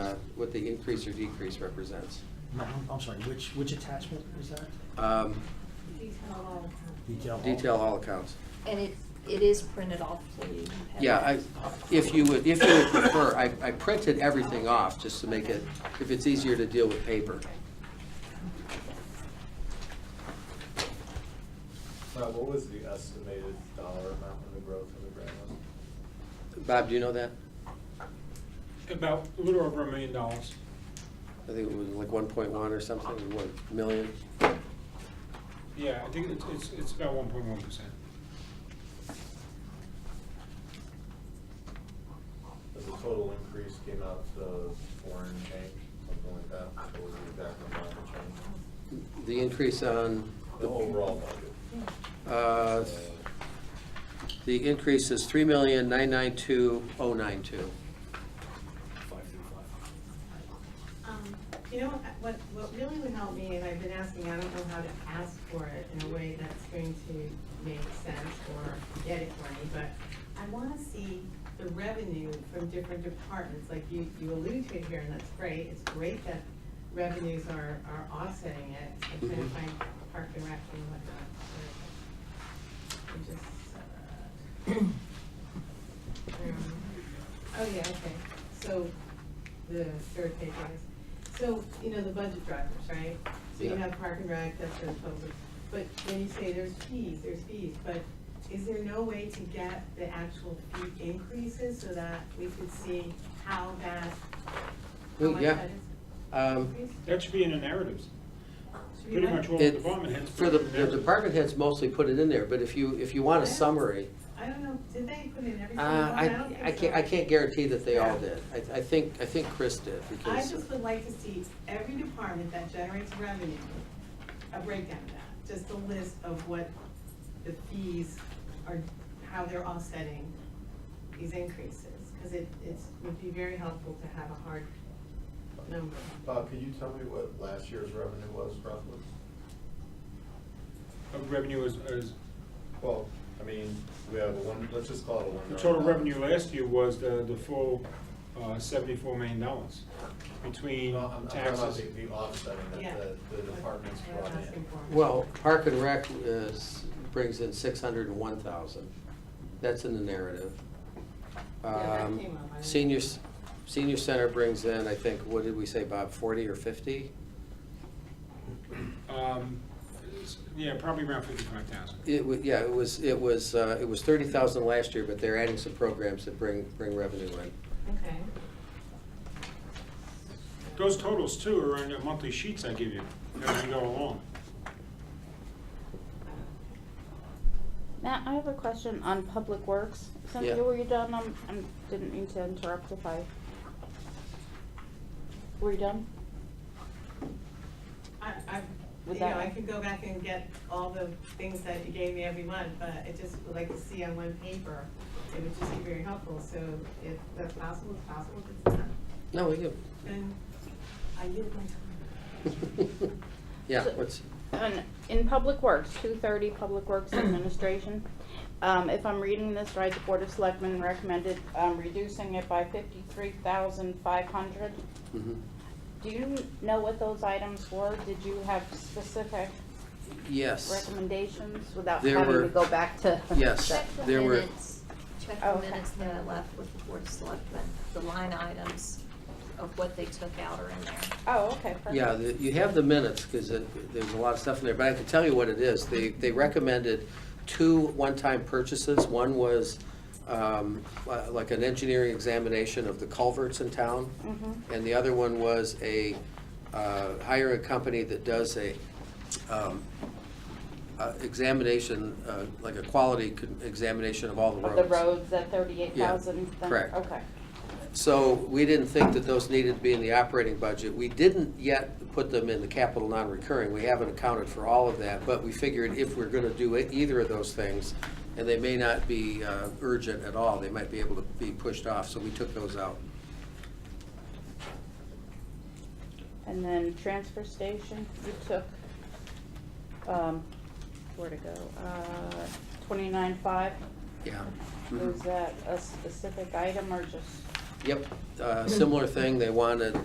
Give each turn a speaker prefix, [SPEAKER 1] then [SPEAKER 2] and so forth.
[SPEAKER 1] uh, what the increase or decrease represents.
[SPEAKER 2] No, I'm- I'm sorry, which, which attachment was that?
[SPEAKER 1] Um,
[SPEAKER 2] Detail. hall?
[SPEAKER 1] Detail all accounts.
[SPEAKER 3] And it, it is printed off, so you can have
[SPEAKER 1] Yeah,
[SPEAKER 3] it.
[SPEAKER 1] I, if you would, if you would prefer, I, I printed everything off just to make it, if it's easier to deal with paper.
[SPEAKER 4] Uh, what was the estimated dollar amount of the growth in the grant was?
[SPEAKER 1] Bob, do you know that?
[SPEAKER 5] About a little over a million dollars.
[SPEAKER 1] I think it was like one point one or something, or one million.
[SPEAKER 5] Yeah, I think it's, it's, it's about one point one percent.
[SPEAKER 4] As the total increase came out to foreign change, something like that, what was the exact amount of change?
[SPEAKER 1] The increase on,
[SPEAKER 4] The overall budget.
[SPEAKER 1] uh, the increase is three million, nine nine two, oh nine two.
[SPEAKER 6] Um, You know, what, what really would help me, and I've been asking, I don't know how to ask for it in a way that's going to make sense or get it for me, but I want to see the revenue from different departments, like you, you allude to it here, and that's great, it's great that revenues are, are offsetting it, I'm trying
[SPEAKER 1] Mhm.
[SPEAKER 6] to find park and rec and whatnot. Where is it? I just, uh, um, Oh, yeah, okay, so the third page is, so, you know, the budget drivers, right? So you
[SPEAKER 1] Yeah.
[SPEAKER 6] have park and rec, that's the public, but when you say there's fees, there's fees, but is there no way to get the actual fee increases so that we could see how that, how
[SPEAKER 1] Well,
[SPEAKER 6] much
[SPEAKER 1] yeah.
[SPEAKER 6] that is
[SPEAKER 1] Um,
[SPEAKER 6] increased?
[SPEAKER 5] That should be in the narratives.
[SPEAKER 6] Should we
[SPEAKER 5] Pretty
[SPEAKER 6] let-
[SPEAKER 5] much all the
[SPEAKER 1] It,
[SPEAKER 5] department heads.
[SPEAKER 1] for
[SPEAKER 5] put
[SPEAKER 1] the,
[SPEAKER 5] it in
[SPEAKER 1] the
[SPEAKER 5] narratives.
[SPEAKER 1] department heads mostly put it in there, but if you, if you want a summary,
[SPEAKER 6] I don't know, did they put in every
[SPEAKER 1] uh,
[SPEAKER 6] single one? I
[SPEAKER 1] I,
[SPEAKER 6] don't think
[SPEAKER 1] I can't,
[SPEAKER 6] so.
[SPEAKER 1] I can't guarantee that they all
[SPEAKER 6] Yeah.
[SPEAKER 1] did. I, I think, I think Chris did,
[SPEAKER 6] I
[SPEAKER 1] because.
[SPEAKER 6] just would like to see every department that generates revenue, a breakdown of that, just a list of what the fees are, how they're offsetting these increases, because it, it's, would be very helpful to have a hard number.
[SPEAKER 4] Bob, could you tell me what last year's revenue was roughly?
[SPEAKER 5] Of Revenue is, is,
[SPEAKER 4] Well, I mean, we have a one, let's just call it a one.
[SPEAKER 5] the
[SPEAKER 4] million
[SPEAKER 5] total
[SPEAKER 4] dollar-
[SPEAKER 5] revenue eh? last year was the, the full, uh, seventy-four million dollars between
[SPEAKER 4] No, I'm, I'm talking about
[SPEAKER 5] taxes.
[SPEAKER 4] the, the offsetting
[SPEAKER 6] Yeah.
[SPEAKER 4] that the, the departments
[SPEAKER 6] That's what
[SPEAKER 4] brought
[SPEAKER 6] I'm asking
[SPEAKER 4] in.
[SPEAKER 6] for.
[SPEAKER 1] Well, Park and Rec is, brings in six hundred and one thousand. That's in the narrative.
[SPEAKER 6] Yeah, that
[SPEAKER 1] Um,
[SPEAKER 6] came up, I didn't-
[SPEAKER 1] Seniors, Senior Center brings in, I think, what did we say, Bob, forty or fifty?
[SPEAKER 5] Um, it's- yeah, probably around fifty-five thousand.
[SPEAKER 1] It wa, yeah, it was, it was, uh, it was thirty thousand last year, but they're adding some programs that bring, bring revenue in.
[SPEAKER 6] Okay.
[SPEAKER 5] Those totals too are in the monthly sheets I give you as we go along.
[SPEAKER 7] Matt, I have a question on Public Works. Cynthia,
[SPEAKER 1] Yeah.
[SPEAKER 7] were you done? I'm, I'm, didn't mean to interrupt if I. Were you done?
[SPEAKER 6] I, I,
[SPEAKER 7] Would
[SPEAKER 6] you know,
[SPEAKER 7] that-
[SPEAKER 6] I could go back and get all the things that you gave me every month, but I just would like to see on one paper. It would just be very helpful, so if that's possible, it's possible, if it's not,
[SPEAKER 1] No, we do.
[SPEAKER 6] Then I yield my time.
[SPEAKER 1] Yeah,
[SPEAKER 7] So-
[SPEAKER 1] what's,
[SPEAKER 7] And in Public Works, two thirty, Public Works Administration. Um, if I'm reading this right, the Board of Selectmen recommended, um, reducing it by fifty-three thousand five hundred.
[SPEAKER 1] mhm.
[SPEAKER 7] Do you know what those items were? Did you have specific
[SPEAKER 1] yes,
[SPEAKER 7] recommendations without
[SPEAKER 1] There
[SPEAKER 7] having
[SPEAKER 1] were-
[SPEAKER 7] to go back to?
[SPEAKER 1] yes.
[SPEAKER 3] Check the
[SPEAKER 1] There were-
[SPEAKER 3] minutes, check
[SPEAKER 7] Oh,
[SPEAKER 3] the
[SPEAKER 7] okay.
[SPEAKER 3] minutes that I left with the Board of Selectmen, the line items of what they took out are in there.
[SPEAKER 7] Oh, okay, perfect.
[SPEAKER 1] Yeah, the- you have the minutes, because there's a lot of stuff in there, but I can tell you what it is. They, they recommended two one-time purchases. One was um, li- like an engineering examination of the culverts in town,
[SPEAKER 7] Mhm.
[SPEAKER 1] and the other one was a, uh, hire a company that does a um, uh, examination, uh, like a quality con- examination of all the
[SPEAKER 7] Of
[SPEAKER 1] roads.
[SPEAKER 7] the roads, that thirty-eight thousand?
[SPEAKER 1] correct.
[SPEAKER 7] Okay.
[SPEAKER 1] So we didn't think that those needed to be in the operating budget. We didn't yet put them in the capital non-recurring. We haven't accounted for all of that, but we figured if we're going to do it- either of those things, and they may not be uh, urgent at all, they might be able to be pushed off, so we took those out.
[SPEAKER 7] And then transfer station, you took, um, where to go, uh, twenty-nine-five?
[SPEAKER 1] Yeah. Mhm.
[SPEAKER 7] Was that a specific item or just?
[SPEAKER 1] Yep, Uh, similar thing, they wanted